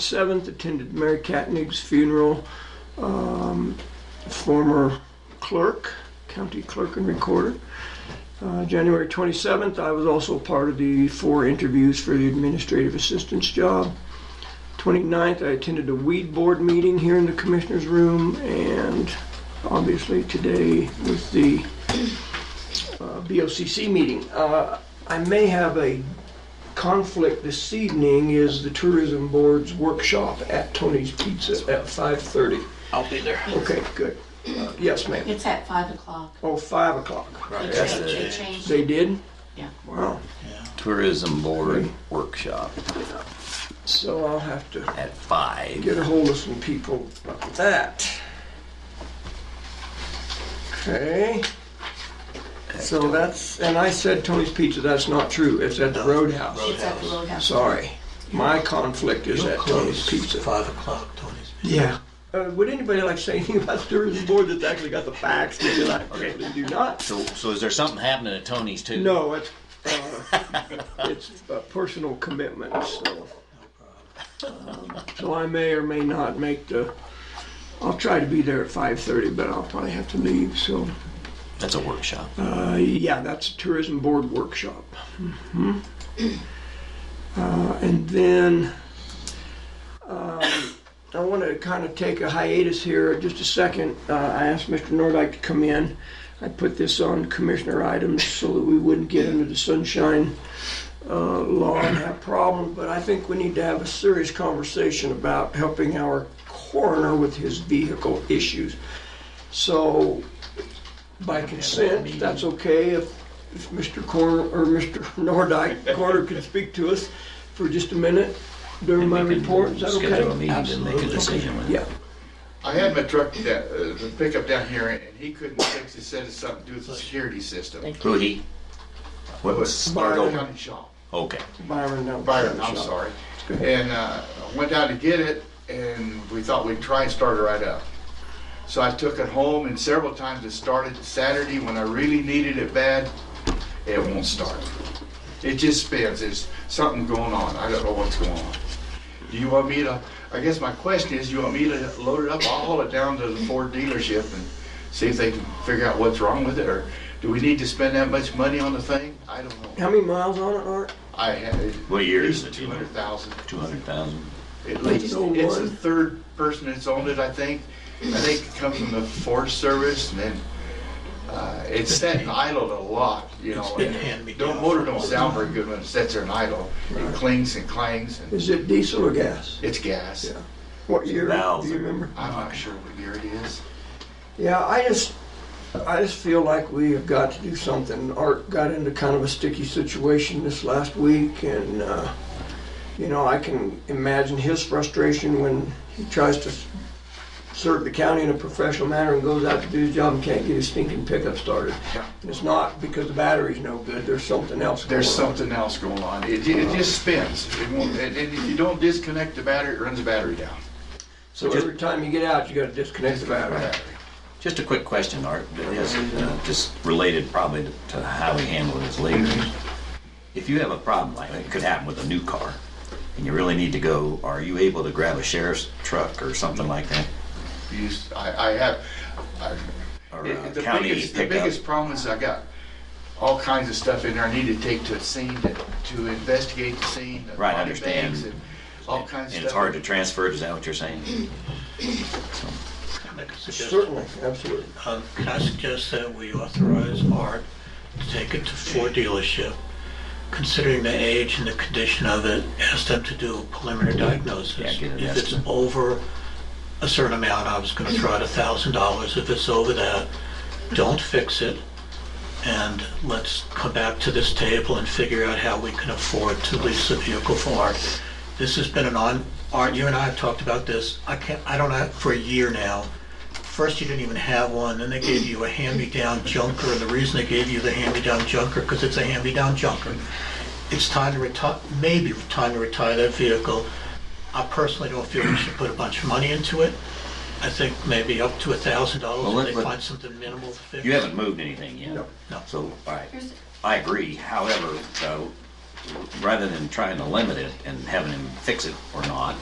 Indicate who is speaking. Speaker 1: 27th, attended Mary Katnig's funeral, um, former clerk, county clerk and recorder. Uh, January 27th, I was also part of the four interviews for the administrative assistance job. 29th, I attended a weed board meeting here in the commissioner's room, and obviously today with the uh, BOCC meeting. Uh, I may have a conflict this evening is the tourism board's workshop at Tony's Pizza at 5:30.
Speaker 2: I'll be there.
Speaker 1: Okay, good. Uh, Yes, ma'am.
Speaker 3: It's at five o'clock.
Speaker 1: Oh, 5 o'clock.
Speaker 3: They
Speaker 2: Right.
Speaker 1: Yes,
Speaker 3: changed, they
Speaker 2: it
Speaker 3: changed.
Speaker 1: They did?
Speaker 3: Yeah.
Speaker 1: Wow.
Speaker 4: Tourism Board Workshop
Speaker 1: So I'll have to
Speaker 4: at five.
Speaker 1: get a hold of some people about that. Okay. So that's, and I said Tony's Pizza, that's not true. It's at the Roadhouse.
Speaker 3: It's at the Roadhouse.
Speaker 1: Sorry. My conflict is
Speaker 2: You'll
Speaker 1: at Tony's
Speaker 2: close
Speaker 1: Pizza.
Speaker 2: five o'clock, Tony's.
Speaker 1: Yeah. Uh, would anybody like to say anything about the tourism board that's actually got the facts? Because I certainly do not.
Speaker 4: So, so is there something happening at Tony's too?
Speaker 1: No, it's, uh, it's a personal commitment, so. um, So I may or may not make the, I'll try to be there at five thirty, but I'll probably have to leave, so.
Speaker 4: That's a workshop.
Speaker 1: Uh, yeah, that's a tourism board workshop. Mhm. Uh, and then um, I want to kind of take a hiatus here just a second. Uh, I asked Mr. Nordyke to come in. I put this on commissioner items so that we wouldn't get into the sunshine uh, law and have problems, but I think we need to have a serious conversation about helping our coroner with his vehicle issues. So by consent, that's okay if, if Mr. Corner, or Mr. Nordike, Corner can speak to us for just a minute during my report, is that
Speaker 4: Schedule a
Speaker 1: okay?
Speaker 4: meeting and make a decision with it.
Speaker 1: Yeah,
Speaker 5: I had my truck, da- uh, the pickup down here, and he couldn't fix it, said it's something to do with the security system.
Speaker 4: Who he? What was, start
Speaker 1: Byron.
Speaker 4: over.
Speaker 5: County shop,
Speaker 4: Okay.
Speaker 1: Byron, no.
Speaker 5: Byron, I'm sorry. And, uh, I went down to get it, and we thought we'd try and start it right up. So I took it home, and several times it started Saturday when I really needed it bad, it won't start. It just spins, there's something going on, I don't know what's going on. Do you want me to, I guess my question is, you want me to load it up, I'll haul it down to the Ford dealership and see if they can figure out what's wrong with it, or do we need to spend that much money on the thing? I don't know.
Speaker 1: How many miles on it, Art?
Speaker 5: I had.
Speaker 4: What year is it?
Speaker 5: Two hundred thousand.
Speaker 4: Two hundred thousand.
Speaker 5: At least,
Speaker 1: Oh,
Speaker 5: it's the
Speaker 1: Lord.
Speaker 5: third person that's owned it, I think. I think it comes from the Forest Service and then, uh, it's sat and idled a lot, you know.
Speaker 2: been
Speaker 5: and
Speaker 2: hand-me-down
Speaker 5: Don't, motor
Speaker 2: for a
Speaker 5: don't sound very good when it sits there and idle. It clings and clangs and
Speaker 1: Is it diesel or gas?
Speaker 5: it's gas.
Speaker 1: Yeah. What year, do you
Speaker 4: Thousand.
Speaker 1: remember?
Speaker 5: I'm not sure what year it is.
Speaker 1: Yeah, I just, I just feel like we have got to do something. Art got into kind of a sticky situation this last week, and, uh, you know, I can imagine his frustration when he tries to serve the county in a professional manner and goes out to do his job and can't get his stinking pickup started.
Speaker 5: Yeah.
Speaker 1: And it's not because the battery's no good, there's something else going on.
Speaker 5: There's something else going on. It, it just spins. It won't, and and if you don't disconnect the battery, it runs the battery down.
Speaker 1: So every time you get out, you gotta disconnect the battery.
Speaker 4: Just a quick question, Art, that is, uh, just related probably to- to how we handle this later. If you have a problem, like it could happen with a new car, and you really need to go, are you able to grab a sheriff's truck or something like that?
Speaker 5: You s- I, I have, I,
Speaker 4: Or
Speaker 5: It-
Speaker 4: a
Speaker 5: The
Speaker 4: county
Speaker 5: biggest, the
Speaker 4: pickup?
Speaker 5: biggest problem is I got all kinds of stuff in there I need to take to a scene to, to investigate the scene. the
Speaker 4: Right, I
Speaker 5: body
Speaker 4: understand.
Speaker 5: bags and All kinds of stuff.
Speaker 4: And it's hard to transfer, is that what you're saying?
Speaker 2: Make a suggestion.
Speaker 1: Certainly, absolutely.
Speaker 2: Uh, Can I suggest that we authorize Art to take it to Ford dealership? Considering the age and the condition of it, ask them to do a preliminary
Speaker 4: Yeah,
Speaker 2: diagnosis.
Speaker 4: get an
Speaker 2: If it's
Speaker 4: estimate.
Speaker 2: over a certain amount, I was gonna throw out a thousand dollars. If it's over that, don't fix it. And let's come back to this table and figure out how we can afford to lease a vehicle for Art. This has been an on, Art, you and I have talked about this, I can't, I don't know, for a year now. First, you didn't even have one, then they gave you a hand-me-down junker, and the reason they gave you the hand-me-down junker, because it's a hand-me-down junker. It's time to retire, maybe time to retire that vehicle. I personally don't feel we should put a bunch of money into it. I think maybe up to a thousand
Speaker 4: Well,
Speaker 2: dollars
Speaker 4: let-
Speaker 2: if they
Speaker 4: let-
Speaker 2: find something minimal to fix.
Speaker 4: You haven't moved anything yet?
Speaker 1: No.
Speaker 2: No.
Speaker 4: So, all right,
Speaker 3: Here's-
Speaker 4: I agree, however, uh, rather than trying to limit it and having him fix it or not,